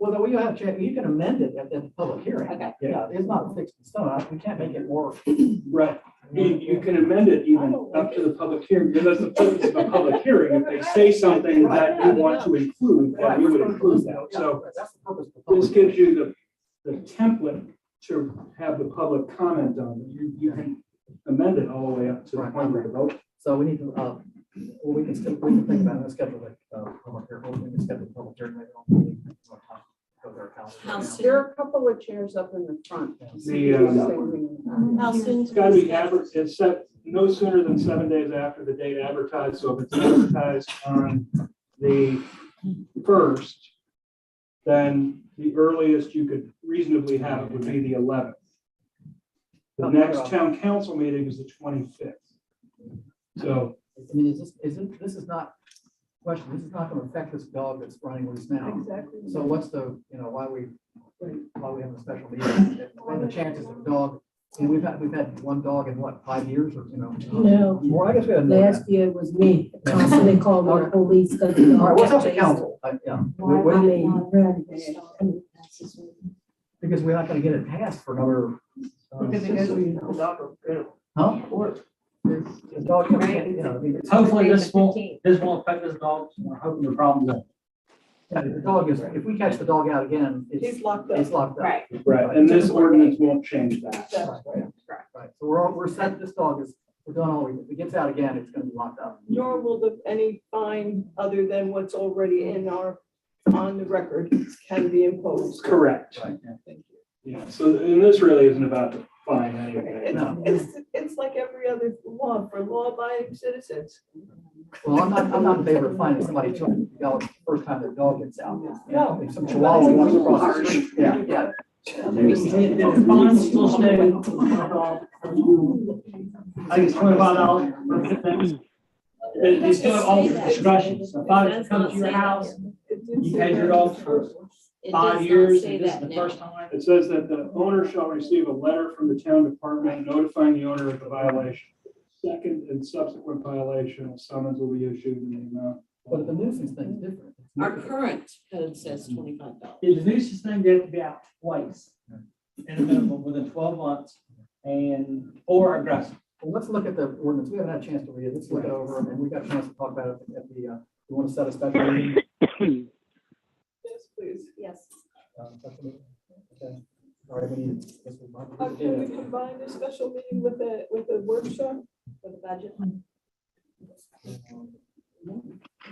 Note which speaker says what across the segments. Speaker 1: Well, though, you have, to- you can amend it at the public hearing.
Speaker 2: Okay.
Speaker 1: Yeah, it's not fixed in stone. I- We can't make it work.
Speaker 3: Right, you, you can amend it even up to the public hearing, because that's the purpose of a public hearing, if they say something that you want to include, then you would include that, so.
Speaker 1: Yeah, That's the purpose of the
Speaker 3: This
Speaker 1: public.
Speaker 3: gives you the, the template to have the public comment on, you, you can amend it all the way up to the point where you vote.
Speaker 1: So we need to, uh, well, we can still, we can think about it, and schedule it, uh, public hearing, we can schedule a public hearing. later on. Go to our council right now.
Speaker 4: There are a couple of chairs up in the front.
Speaker 3: The, uh,
Speaker 2: How soon?
Speaker 3: It's gotta be adver, it's set no sooner than seven days after the date advertised, so if it's advertised on the first, then the earliest you could reasonably have it would be the eleventh. The next town council meeting is the twenty-fifth. So,
Speaker 1: I mean, is this, isn't, this is not, question, this is not gonna affect this dog that's running loose now.
Speaker 4: Exactly.
Speaker 1: So what's the, you know, why we, why we having a special meeting? And the chances of dog, you know, we've had, we've had one dog in what, five years or, you know?
Speaker 5: No.
Speaker 1: Well, I guess we had. more than that.
Speaker 5: Last year was me, constantly called the police. because the
Speaker 1: All right, what's up
Speaker 5: dog
Speaker 1: to
Speaker 5: chased-
Speaker 1: council? I- yeah,
Speaker 5: I
Speaker 1: we- we-
Speaker 5: mean,
Speaker 1: Because we're not gonna get it passed for another. uh, Huh? The dog comes in, you know, the-
Speaker 6: Hopefully this won't, this won't affect this dog, we're hoping the problem's up.
Speaker 1: the dog is, if we catch the dog out again,
Speaker 4: He's
Speaker 1: it's,
Speaker 4: locked up.
Speaker 1: it's locked up.
Speaker 2: Right.
Speaker 3: right, and this ordinance won't change that.
Speaker 1: Right, right. So we're, all- we're set, this dog is, we're done all, we- if it gets out again, it's gonna be locked up.
Speaker 4: Nor will the, any fine other than what's already in our, on the record can be imposed.
Speaker 3: Correct.
Speaker 1: Right.
Speaker 3: Yeah, so, and this really isn't about the fine anyway.
Speaker 1: No.
Speaker 4: It's, it's like every other law for law-abiding citizens.
Speaker 1: Well, I'm not, I'm not in favor of finding somebody two hundred dollars the first time their dog gets out.
Speaker 4: No.
Speaker 1: If some chihuahua wants to cross the street, yeah, yeah.
Speaker 6: If bonds still stay, I think it's twenty-five dollars for the thing. They, they still have all the discretion, so if I come to your house,
Speaker 4: It did
Speaker 6: You
Speaker 4: say
Speaker 6: had your
Speaker 4: that.
Speaker 6: dogs for- five years, and this is the first time.
Speaker 3: It says that the owner shall receive a letter from the town department notifying the owner of the violation. Second and subsequent violation, a summons will be issued in the amount.
Speaker 1: But the nuisance thing is different.
Speaker 7: Our current code says twenty-five dollars.
Speaker 6: The nuisance thing they have to be out twice in a minimum within twelve months and, or aggressive.
Speaker 1: Well, let's look at the ordinance. We haven't had a chance to read it. Let's look it over and we got a chance to talk about it at the, uh, we want to set a special meeting.
Speaker 4: Yes, please.
Speaker 2: Yes.
Speaker 1: uh, special meeting? Okay. All right, we need. this is my-
Speaker 4: Uh, Can we combine a special meeting with a, with a workshop?
Speaker 2: For the budget.
Speaker 4: We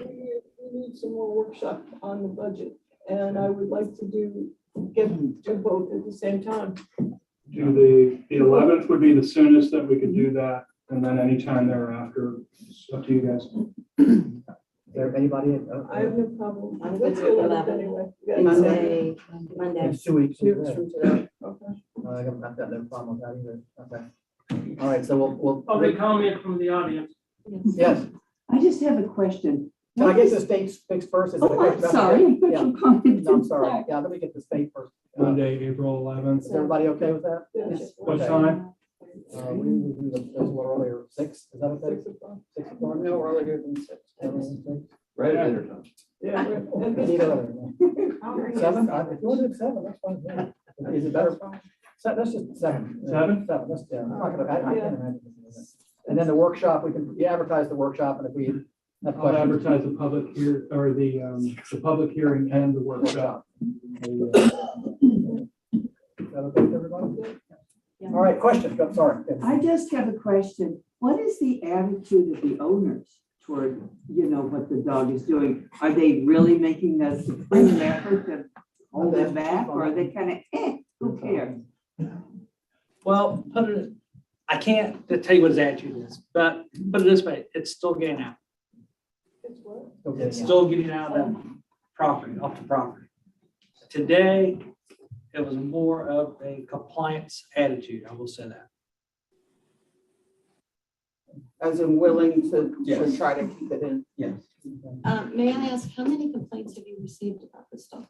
Speaker 4: need- we need some more workshop on the budget, and I would like to do, get to both at the same time.
Speaker 3: Do the, the eleventh would be the soonest that we could do that, and then anytime thereafter, it's up to you guys.
Speaker 1: There, anybody? uh,
Speaker 4: I have no problem.
Speaker 2: I'm good
Speaker 4: Let's
Speaker 2: with
Speaker 4: go with it
Speaker 2: 11.
Speaker 4: anyway. You guys say-
Speaker 2: Monday, Monday.
Speaker 1: in Two weeks.
Speaker 4: Two weeks from today. Okay.
Speaker 1: I haven't, I've got no problem with that either. Okay. All right, so we'll, we'll.
Speaker 4: Oh,
Speaker 6: comment from the audience.
Speaker 1: Yes.
Speaker 8: I just have a question.
Speaker 1: Can I get the state fixed first? Is it a
Speaker 8: Oh, I'm
Speaker 1: question about-
Speaker 8: sorry. I thought
Speaker 1: Yeah.
Speaker 8: you commented.
Speaker 1: No, I'm sorry. Yeah, let me get the state first. Uh,
Speaker 3: Monday, April eleventh,
Speaker 1: Is everybody okay with that?
Speaker 4: Yes.
Speaker 3: what time?
Speaker 1: Uh, we, we, do the- those were earlier, six, is that okay?
Speaker 4: Six o'clock.
Speaker 1: Six o'clock?
Speaker 4: No earlier than six.
Speaker 1: Seven, six?
Speaker 9: Right at dinner time.
Speaker 4: Yeah. we're- and
Speaker 1: Need
Speaker 4: this-
Speaker 1: another one. Seven, I- if you want to do seven, that's fine. with me. Is it better? So that's just seven.
Speaker 3: Seven?
Speaker 1: Seven, that's, yeah, I'm not gonna, I, I can't imagine. this. And then the workshop, we can, you advertise the workshop and if we have
Speaker 3: I'll
Speaker 1: questions.
Speaker 3: advertise the public here, or the, um, the public hearing and the workshop.
Speaker 1: workshop. Is that okay with everybody? All right, question, I'm sorry.
Speaker 8: I just have a question. What is the attitude of the owners toward, you know, what the dog is doing? Are they really making a supreme effort to hold them back or are they kind of, eh, who cares?
Speaker 6: Well, put it, I can't tell you what his attitude is, but put it this way, it's still getting out.
Speaker 4: it's what?
Speaker 1: Okay,
Speaker 6: It's
Speaker 1: yeah.
Speaker 6: still getting out of that property, off the property. Today, it was more of a compliance attitude, I will say that.
Speaker 4: As in willing to,
Speaker 6: Yes.
Speaker 4: try to keep it in.
Speaker 7: Uh, may I ask, how many complaints have you received about this dog?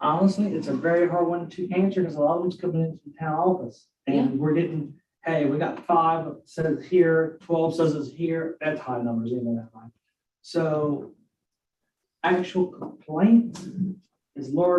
Speaker 6: Honestly, it's a very hard one to answer because a lot of them's coming into the town office. And we're getting, hey, we got five says here, twelve says it's here, that's high numbers, even that high. So actual complaints is large.